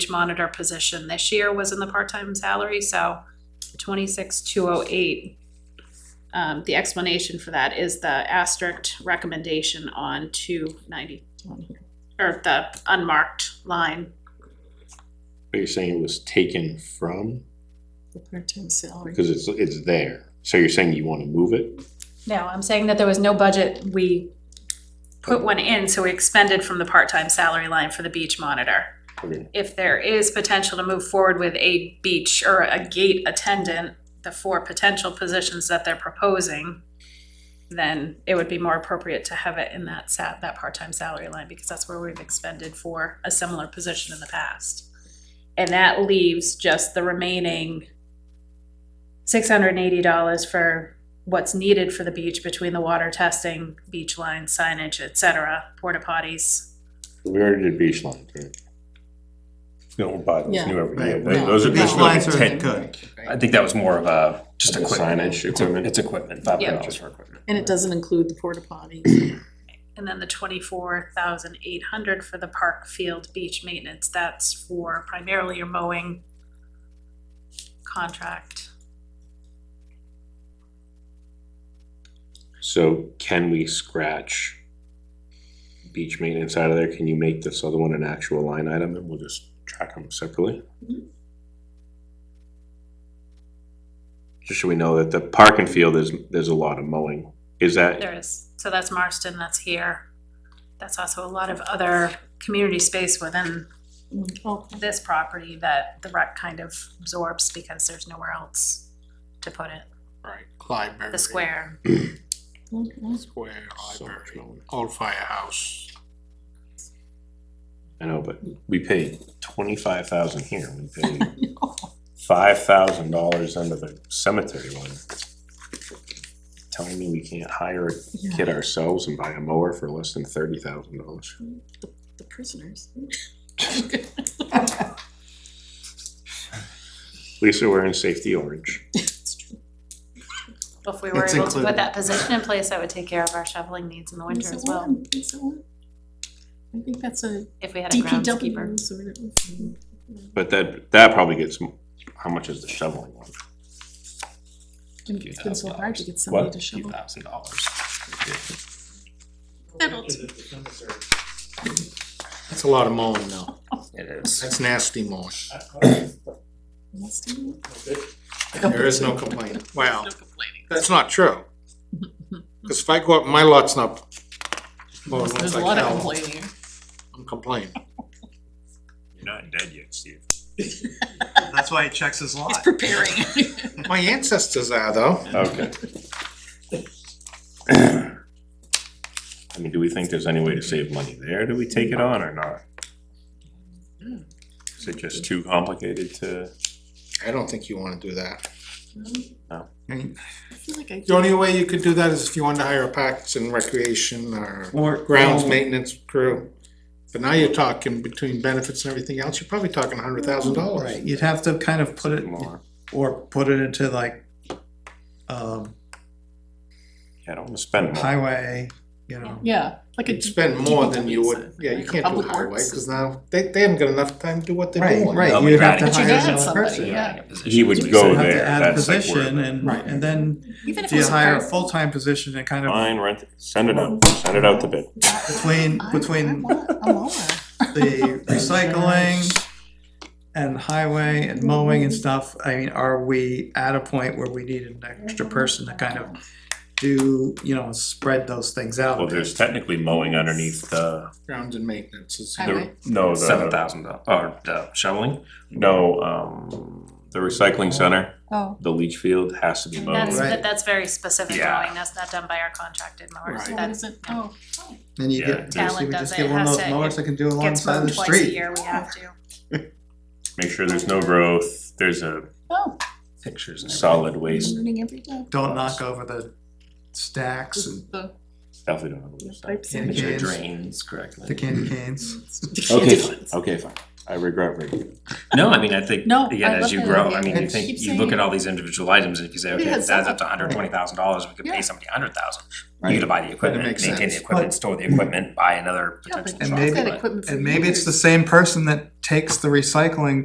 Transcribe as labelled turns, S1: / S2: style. S1: monitor position this year was in the part-time salary, so twenty-six, two oh eight. Um, the explanation for that is the asterisk recommendation on two ninety, or the unmarked line.
S2: But you're saying it was taken from,
S3: The part-time salary.
S2: because it's, it's there. So you're saying you wanna move it?
S1: No, I'm saying that there was no budget, we put one in, so we expended from the part-time salary line for the beach monitor.
S2: Okay.
S1: if there is potential to move forward with a beach or a gate attendant, the four potential positions that they're proposing, then it would be more appropriate to have it in that sa- that part-time salary line, because that's where we've expended for a similar position in the past. And that leaves just the remaining six hundred and eighty dollars for what's needed for the beach between the water testing, beach line signage, et cetera, porta potties.
S2: We already did beach line, right?
S4: You don't buy those
S3: Yeah.
S4: new every year.
S5: Right,
S4: right?
S3: no,
S4: Those are
S3: no.
S4: just
S5: These
S3: Well,
S4: really
S5: lines are
S4: ten.
S5: good.
S6: I think that was more of a, just
S2: Like a
S6: equipment.
S2: signage
S6: It's a-
S2: equipment.
S6: It's equipment, five hundred dollars
S1: Yeah.
S6: for equipment.
S3: And it doesn't include the porta potties.
S1: And then the twenty-four thousand eight hundred for the park field beach maintenance, that's for primarily your mowing contract.
S2: So can we scratch beach maintenance out of there? Can you make this other one an actual line item and we'll just track them separately? Just so we know that the park and field is, there's a lot of mowing. Is that,
S1: There is, so that's Marston, that's here. That's also a lot of other community space within
S3: Oh,
S1: this property that the rec kind of absorbs because there's nowhere else to put it.
S5: Right, Library.
S1: The square,
S3: okay.
S5: Square,
S2: So much
S5: library,
S2: mowing.
S5: old firehouse.
S2: I know, but we paid twenty-five thousand here. We paid five thousand dollars under the cemetery one. Telling me we can't hire a
S3: Yeah,
S2: kid ourselves and buy a mower for less than thirty thousand dollars.
S3: The prisoners.
S2: At least they're wearing safety orange.
S1: if we were
S5: It's
S1: able to put
S5: included.
S1: that position in place, that would take care of our shoveling needs in the winter as well,
S3: It's a one. I think that's a
S1: if we had a
S3: DPW
S1: groundskeeper.
S3: sort of.
S2: But that, that probably gets, m- how much is the shoveling one?
S3: It's been so hard to get somebody
S6: What?
S3: to
S6: Few
S3: shovel.
S6: thousand dollars.
S3: Adults.
S5: That's a lot of mowing though.
S6: It is.
S5: That's nasty mowing.
S3: Must do
S5: There is no complaint. Wow. That's not true. Cause if I go up, my lot's not. mowed once I fell.
S3: complaining.
S5: I'm complaining.
S4: You're not dead yet, Steve.
S7: That's why he checks his
S3: It's
S7: lot.
S3: preparing.
S5: My ancestors are though.
S2: Okay. I mean, do we think there's any way to save money there? Do we take it on or not? Is it just too complicated to?
S5: I don't think you wanna do that.
S2: No.
S3: I feel like I,
S5: Mm. The only way you could do that is if you wanted to hire a parks and recreation or
S6: Or
S5: grounds maintenance crew. But now you're talking between benefits and everything else, you're probably talking a hundred thousand dollars.
S7: Right, you'd have to kind of put it,
S2: More.
S7: or put it into like, um,
S2: I don't wanna spend more.
S7: highway, you know.
S3: yeah, like a.
S5: You'd spend more than you would,
S3: DPW,
S5: yeah, you
S3: like a
S5: can't do
S3: public
S5: highway,
S3: works.
S5: cause now, they, they haven't got enough time to do what they're
S7: Right,
S5: doing.
S7: right,
S6: They'll be
S7: you'd have to
S6: adding-
S3: But you
S7: hire
S3: got
S7: another
S3: somebody,
S7: person.
S3: yeah.
S2: He would
S7: So
S2: go
S7: you have to
S2: there,
S7: add a
S2: that's like where
S7: position
S2: the-
S7: and,
S5: Right.
S7: and then
S3: Even if
S7: do you
S3: it was a
S7: hire a
S3: person.
S7: full-time position and kind of
S2: Fine, rent, it. send it out, send it out to bid.
S7: between,
S3: I- I
S7: between
S3: want a mower.
S7: the recycling and highway and mowing and stuff, I mean, are we at a point where we need an extra person to kind of do, you know, spread those things out?
S4: Well, there's technically mowing underneath the,
S5: Grounds and maintenance is.
S3: I
S4: the, no,
S6: Seven
S4: the,
S6: thousand dollars, or the shoveling,
S4: no, um,
S2: The recycling center,
S3: Oh.
S2: the leach field has to be mowed.
S1: That's,
S7: Right.
S1: but that's very specific
S4: Yeah.
S1: mowing, that's not done by our contracted mowers,
S5: Right.
S3: So
S1: That's-
S3: what is it? Oh,
S7: And you
S4: Yeah,
S7: get,
S4: there's-
S7: basically,
S1: Talent
S7: we just get
S1: does it,
S7: one of
S1: has
S7: those
S1: to-
S7: mowers that can do
S1: gets
S7: alongside
S1: mowed
S7: the
S1: twice
S7: street.
S1: a year, we have to.
S4: make sure there's no growth, there's a
S3: oh,
S6: pictures and everything.
S2: Solid waste,
S3: learning every day.
S7: Don't knock over the stacks and
S3: The
S2: definitely don't have to
S3: the
S2: do that.
S3: pipes in
S7: Yeah.
S6: Make sure it
S7: Drains.
S6: drains
S7: the
S6: correctly.
S7: candy canes.
S2: Okay, fine, okay, fine, I regret reading.
S6: No, I mean, I think,
S1: No, I
S6: again,
S1: love
S6: as you
S1: that
S6: grow,
S1: idea.
S6: I mean, you
S5: It's-
S6: think,
S3: Keep
S6: you look
S3: saying
S6: at all these individual items and if you say,
S3: We
S6: okay,
S3: had
S6: it adds up to
S3: something.
S6: hundred twenty thousand dollars, we could
S3: Yeah.
S6: pay somebody hundred thousand.
S2: Right.
S6: You could buy the equipment,
S5: makes
S6: maintain the
S5: sense.
S6: equipment, store the equipment, buy another
S3: Yeah, but
S6: potential
S3: it's
S6: truck.
S7: maybe-
S3: got
S6: but-
S3: equipment for
S7: And maybe it's
S3: years.
S7: the same person that takes the recycling